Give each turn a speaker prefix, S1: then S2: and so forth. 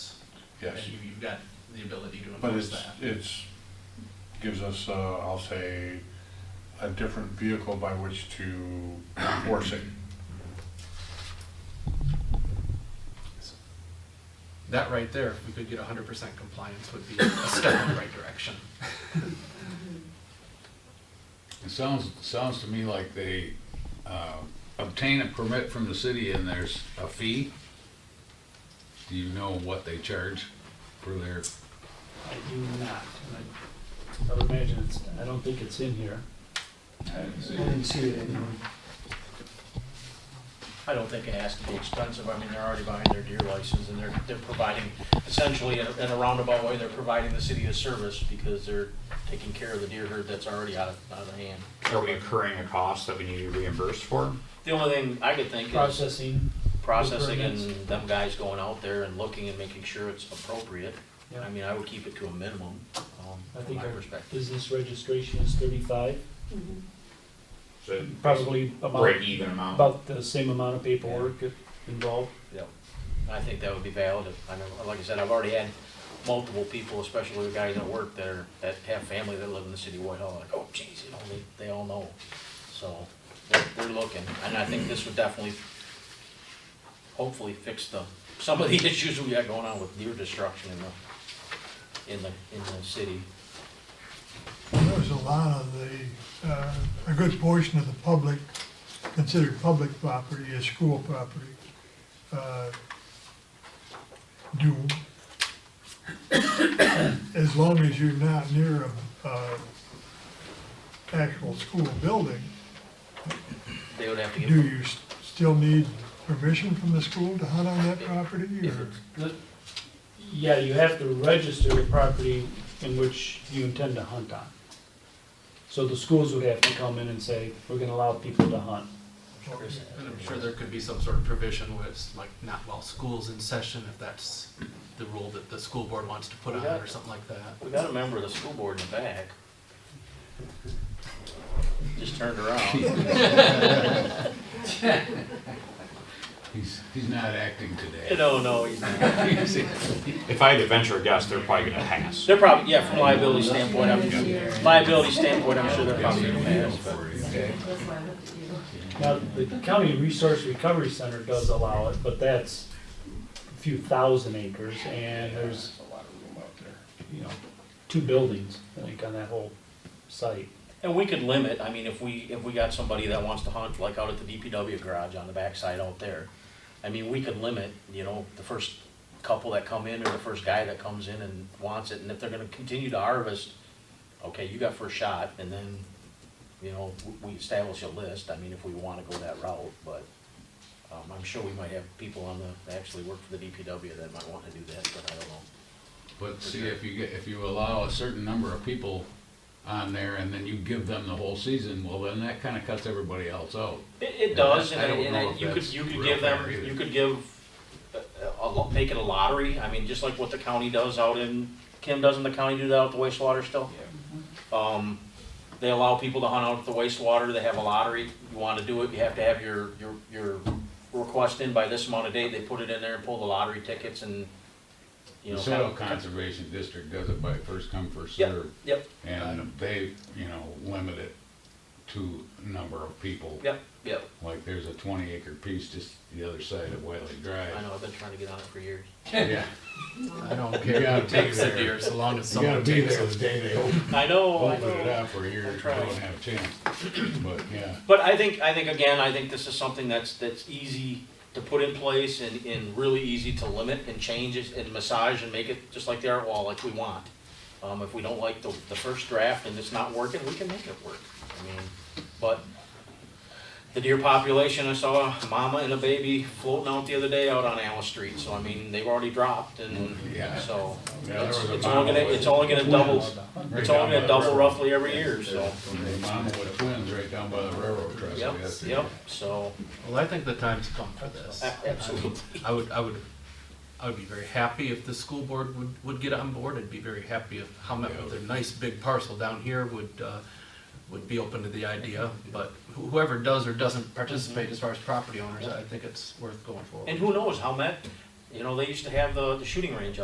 S1: Yes.
S2: And you, you've got the ability to
S1: But
S2: enforce
S1: it's,
S2: that.
S1: it's, gives us, uh, I'll say, a different vehicle by which to force it.
S2: That right there, if we could get hundred percent compliance, would be a step in the right direction.
S3: It sounds, sounds to me like they uh, obtain a permit from the city and there's a fee. Do you know what they charge for their,
S4: I do not, and I, I would imagine it's, I don't think it's in here.
S5: I didn't see it anywhere.
S6: I don't think it has to be expensive. I mean, they're already buying their deer license and they're, they're providing, essentially in a- in a roundabout way, they're providing the city a service because they're taking care of the deer herd that's already out of, out of hand.
S7: Are we incurring a cost that we need to reimburse for?
S6: The only thing I could think is
S4: Processing,
S6: processing and
S4: Permits.
S6: them guys going out there and looking and making sure it's appropriate.
S4: Yeah.
S6: I mean, I would keep it to a minimum, um,
S4: I
S6: from
S4: think
S6: my
S4: our
S6: perspective.
S4: business registration is thirty-five,
S7: So
S4: probably
S3: Oh.
S4: about,
S7: break even amount.
S4: about the same amount of paperwork involved.
S6: Yep. I think that would be valid. I know, like I said, I've already had multiple people, especially the guys at work that are, that have family that live in the city of Whitehall, like, oh geez, you know, they, they all know. So, they're, they're looking, and I think this would definitely, hopefully fix the, some of the issues we got going on with deer destruction in the, in the, in the city.
S8: There was a lot of the, uh, a good portion of the public, considered public property as school property, uh, do, as long as you're not near a, uh, actual school building,
S6: They would have to
S8: do
S6: give,
S8: you s- still need permission from the school to hunt on that property,
S6: if
S8: or?
S6: it's,
S4: Yeah, you have to register the property in which you intend to hunt on. So the schools would have to come in and say, we're gonna allow people to hunt.
S2: And I'm sure there could be some sort of provision where it's like not while school's in session, if that's the rule that the school board wants to put on it or something like that.
S6: we got a member of the school board in the back. Just turned around.
S3: he's, he's not acting today.
S6: No, no, he's not.
S7: If I had to venture a guess, they're probably gonna pass.
S6: They're probably, yeah, from liability standpoint, I'm, liability standpoint, I'm sure they're probably gonna pass, but.
S3: Okay.
S9: That's why I looked at you.
S4: Now, the county resource recovery center does allow it, but that's a few thousand acres, and there's, you know, two buildings, I think, on that whole site.
S6: And we could limit, I mean, if we, if we got somebody that wants to hunt, like out at the DPW garage on the backside out there, I mean, we could limit, you know, the first couple that come in or the first guy that comes in and wants it, and if they're gonna continue to harvest, okay, you got first shot, and then, you know, w- we establish a list, I mean, if we wanna go that route, but, um, I'm sure we might have people on the, that actually work for the DPW that might wanna do that, but I don't know.
S3: But see, if you get, if you allow a certain number of people on there and then you give them the whole season, well, then that kind of cuts everybody else out.
S6: It, it
S3: And
S6: does,
S3: I-
S6: and,
S3: I
S6: I-
S3: don't
S6: and I-
S3: know if
S6: you could,
S3: that's
S6: you could
S3: real
S6: give them,
S3: fair either.
S6: you could give, uh, a, a lo- make it a lottery, I mean, just like what the county does out in, Kim, doesn't the county do that out at the wastewater still? Um, they allow people to hunt out at the wastewater, they have a lottery, you wanna do it, you have to have your, your, your request in by this amount of date, they put it in there and pull the lottery tickets and,
S3: The
S6: you know.
S3: Soil
S6: kind of-
S3: Conservation District does it by first come, first
S6: Yep,
S3: served.
S6: Yep,
S3: And they, you know, limit it to number of people.
S6: yep, yep,
S3: Like there's a twenty acre piece just the other side of Wiley Drive.
S6: I know, I've been trying to get on it for years.
S3: Yeah,
S2: I don't
S3: You
S2: care
S3: gotta
S2: who takes the
S3: take their-
S2: deer, so long as
S3: you gotta
S2: someone
S3: be
S2: takes
S3: there
S2: it.
S3: the day they open,
S6: I know, Oh, I know.
S3: open it up or you're,
S6: I'm
S3: you
S6: trying.
S3: don't have a chance. But yeah,
S6: But I think, I think again, I think this is something that's, that's easy to put in place and, and really easy to limit and change it and massage and make it just like the art wall, like we want. Um, if we don't like the, the first draft and it's not working, we can make it work. I mean, but the deer population, I saw a mama and a baby floating out the other day out on Alice Street, so I mean, they've already dropped and,
S3: Yeah.
S6: so.
S3: Yeah, there
S6: It's
S3: was a
S6: it's
S3: mama
S6: only gonna,
S3: with-
S6: it's only gonna double,
S3: Right
S6: it's
S3: down
S6: only
S3: by the
S6: gonna double
S3: river.
S6: roughly every year, so,
S3: from the mama with twins right down by the railroad trestle
S6: yep,
S3: yesterday.
S6: yep, so,
S2: Well, I think the time's come for this.
S6: a- absolutely.
S2: I would, I would, I would be very happy if the school board would, would get on board, I'd be very happy if Howmet with their nice big parcel down here would, uh, would be open to the idea, but wh- whoever does or doesn't participate as far as property owners, I think it's worth going forward.
S6: And who knows, how Met, you know, they used to have the, the shooting range